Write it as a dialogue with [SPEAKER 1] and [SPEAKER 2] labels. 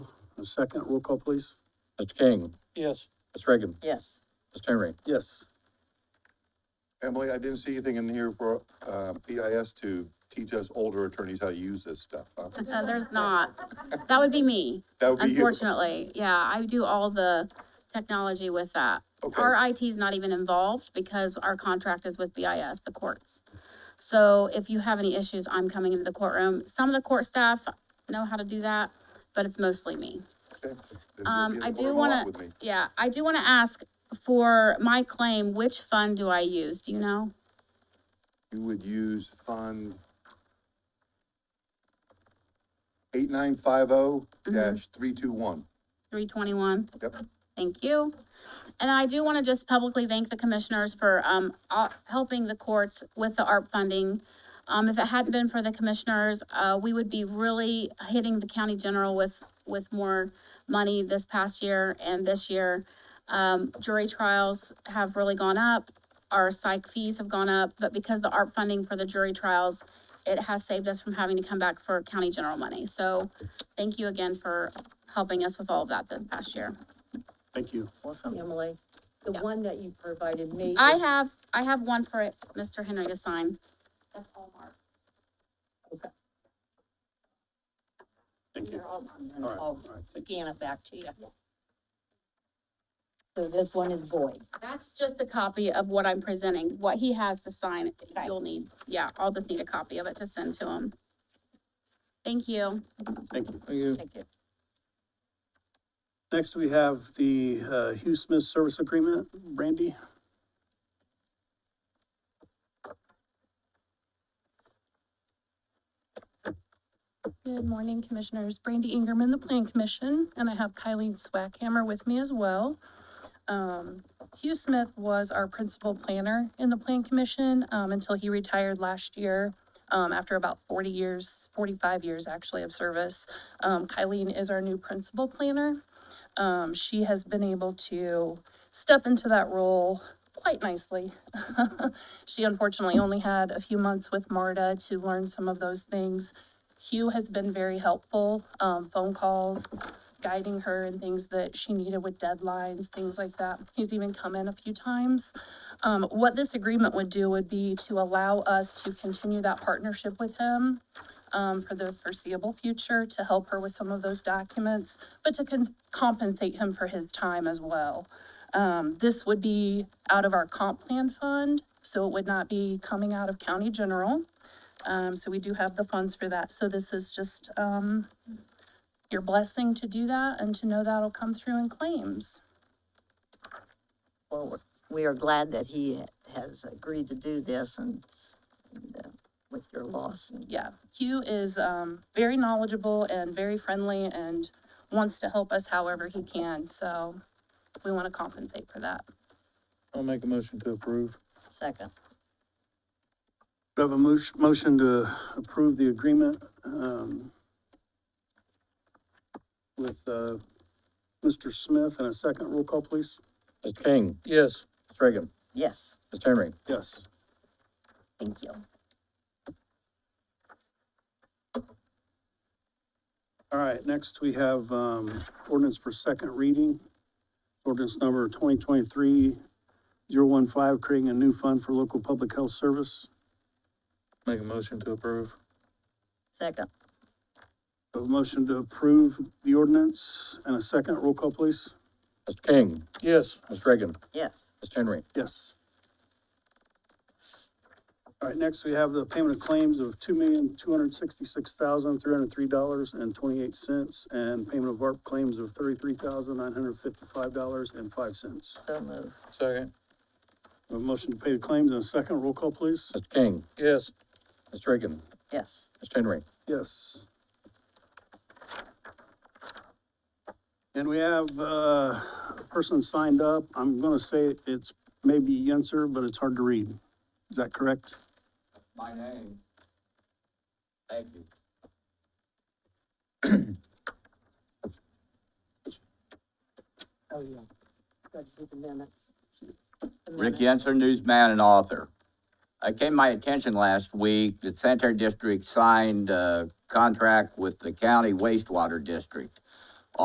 [SPEAKER 1] and second, roll call please.
[SPEAKER 2] Mr. King,
[SPEAKER 1] Yes.
[SPEAKER 2] Ms. Reagan,
[SPEAKER 3] Yes,
[SPEAKER 2] Mr. Henry.
[SPEAKER 1] Yes.
[SPEAKER 4] Emily, I didn't see anything in here for, uh, PIS to teach us older attorneys how to use this stuff, huh?
[SPEAKER 5] Uh, there's not. That would be me,
[SPEAKER 4] That would be you.
[SPEAKER 5] unfortunately. Yeah, I do all the technology with that.
[SPEAKER 4] Okay,
[SPEAKER 5] Our IT is not even involved because our contract is with BIS, the courts. So if you have any issues, I'm coming into the courtroom. Some of the court staff know how to do that, but it's mostly me.
[SPEAKER 4] okay. Then you'll
[SPEAKER 5] um,
[SPEAKER 4] be in
[SPEAKER 5] I
[SPEAKER 4] the
[SPEAKER 5] do
[SPEAKER 4] room a lot
[SPEAKER 5] wanna-
[SPEAKER 4] with me.
[SPEAKER 5] Yeah, I do want to ask for my claim, which fund do I use? Do you know?
[SPEAKER 4] You would use fund eight nine five oh
[SPEAKER 5] Mm-hmm.
[SPEAKER 4] dash three two one.
[SPEAKER 5] Three twenty-one?
[SPEAKER 4] Yep.
[SPEAKER 5] Thank you. And I do want to just publicly thank the commissioners for, um, uh, helping the courts with the ARP funding. Um, if it hadn't been for the commissioners, uh, we would be really hitting the county general with, with more money this past year and this year. Um, jury trials have really gone up, our psych fees have gone up, but because the ARP funding for the jury trials, it has saved us from having to come back for county general money. So thank you again for helping us with all of that this past year.
[SPEAKER 1] Thank you.
[SPEAKER 3] Emily, the
[SPEAKER 5] Yeah.
[SPEAKER 3] one that you provided me.
[SPEAKER 5] I
[SPEAKER 3] is-
[SPEAKER 5] have, I have one for it, Mr. Henry to sign. That's Hallmark.
[SPEAKER 1] Thank you.
[SPEAKER 3] They're all done, and
[SPEAKER 1] All right,
[SPEAKER 3] I'll
[SPEAKER 1] all right, thank
[SPEAKER 3] scan it back to you. So this one is void.
[SPEAKER 5] That's just a copy of what I'm presenting, what he has to sign,
[SPEAKER 3] Okay.
[SPEAKER 5] you'll need, yeah, I'll just need a copy of it to send to him. Thank you.
[SPEAKER 1] you, thank you.
[SPEAKER 2] Thank you.
[SPEAKER 3] Thank you.
[SPEAKER 1] Next, we have the, uh, Hugh Smith Service Agreement, Brandy.
[SPEAKER 6] Good morning, Commissioners. Brandy Ingerman, the Plan Commission, and I have Kylie Swackhammer with me as well. Um, Hugh Smith was our principal planner in the Plan Commission, um, until he retired last year, um, after about forty years, forty-five years actually of service. Um, Kylie is our new principal planner. Um, she has been able to step into that role quite nicely. She unfortunately only had a few months with MARTA to learn some of those things. Hugh has been very helpful, um, phone calls, guiding her in things that she needed with deadlines, things like that. He's even come in a few times. Um, what this agreement would do would be to allow us to continue that partnership with him um, for the foreseeable future, to help her with some of those documents, but to cons- compensate him for his time as well. Um, this would be out of our comp plan fund, so it would not be coming out of county general. Um, so we do have the funds for that. So this is just, um, your blessing to do that and to know that'll come through in claims.
[SPEAKER 3] Well, we are glad that he has agreed to do this and, and, uh, with your loss and
[SPEAKER 6] Yeah, Hugh is, um, very knowledgeable and very friendly and wants to help us however he can. So we want to compensate for that.
[SPEAKER 2] I'll make a motion to approve.
[SPEAKER 3] second.
[SPEAKER 1] We have a mo- motion to approve the agreement, um, with, uh, Mr. Smith, and a second, roll call please.
[SPEAKER 2] Mr. King,
[SPEAKER 1] Yes.
[SPEAKER 2] Ms. Reagan,
[SPEAKER 3] Yes,
[SPEAKER 2] Mr. Henry.
[SPEAKER 1] Yes.
[SPEAKER 6] Thank you.
[SPEAKER 1] All right, next we have, um, ordinance for second reading. Ordinance number 2023 015, creating a new fund for local public health service.
[SPEAKER 2] Make a motion to approve.
[SPEAKER 3] second.
[SPEAKER 1] A motion to approve the ordinance and a second, roll call please.
[SPEAKER 2] Mr. King,
[SPEAKER 1] Yes.
[SPEAKER 2] Ms. Reagan,
[SPEAKER 3] Yes,
[SPEAKER 2] Mr. Henry.
[SPEAKER 1] Yes. All right, next we have the payment of claims of two million, two hundred sixty-six thousand, three hundred three dollars and twenty-eight cents, and payment of ARP claims of thirty-three thousand, nine hundred fifty-five dollars and five cents.
[SPEAKER 3] so moved.
[SPEAKER 2] Second.
[SPEAKER 1] A motion to pay the claims in a second, roll call please.
[SPEAKER 2] Mr. King,
[SPEAKER 1] Yes.
[SPEAKER 2] Ms. Reagan,
[SPEAKER 3] Yes,
[SPEAKER 2] Mr. Henry.
[SPEAKER 1] Yes. And we have, uh, a person signed up, I'm gonna say it's maybe Yenser, but it's hard to read. Is that correct?
[SPEAKER 7] my
[SPEAKER 3] Mm-hmm.
[SPEAKER 7] name. Thank you.
[SPEAKER 3] oh, yeah. Got to do the minutes. The
[SPEAKER 7] Rick
[SPEAKER 3] minutes.
[SPEAKER 7] Yenser, newsman and author. It came to my attention last week that Sanitary District signed a contract with the county wastewater district.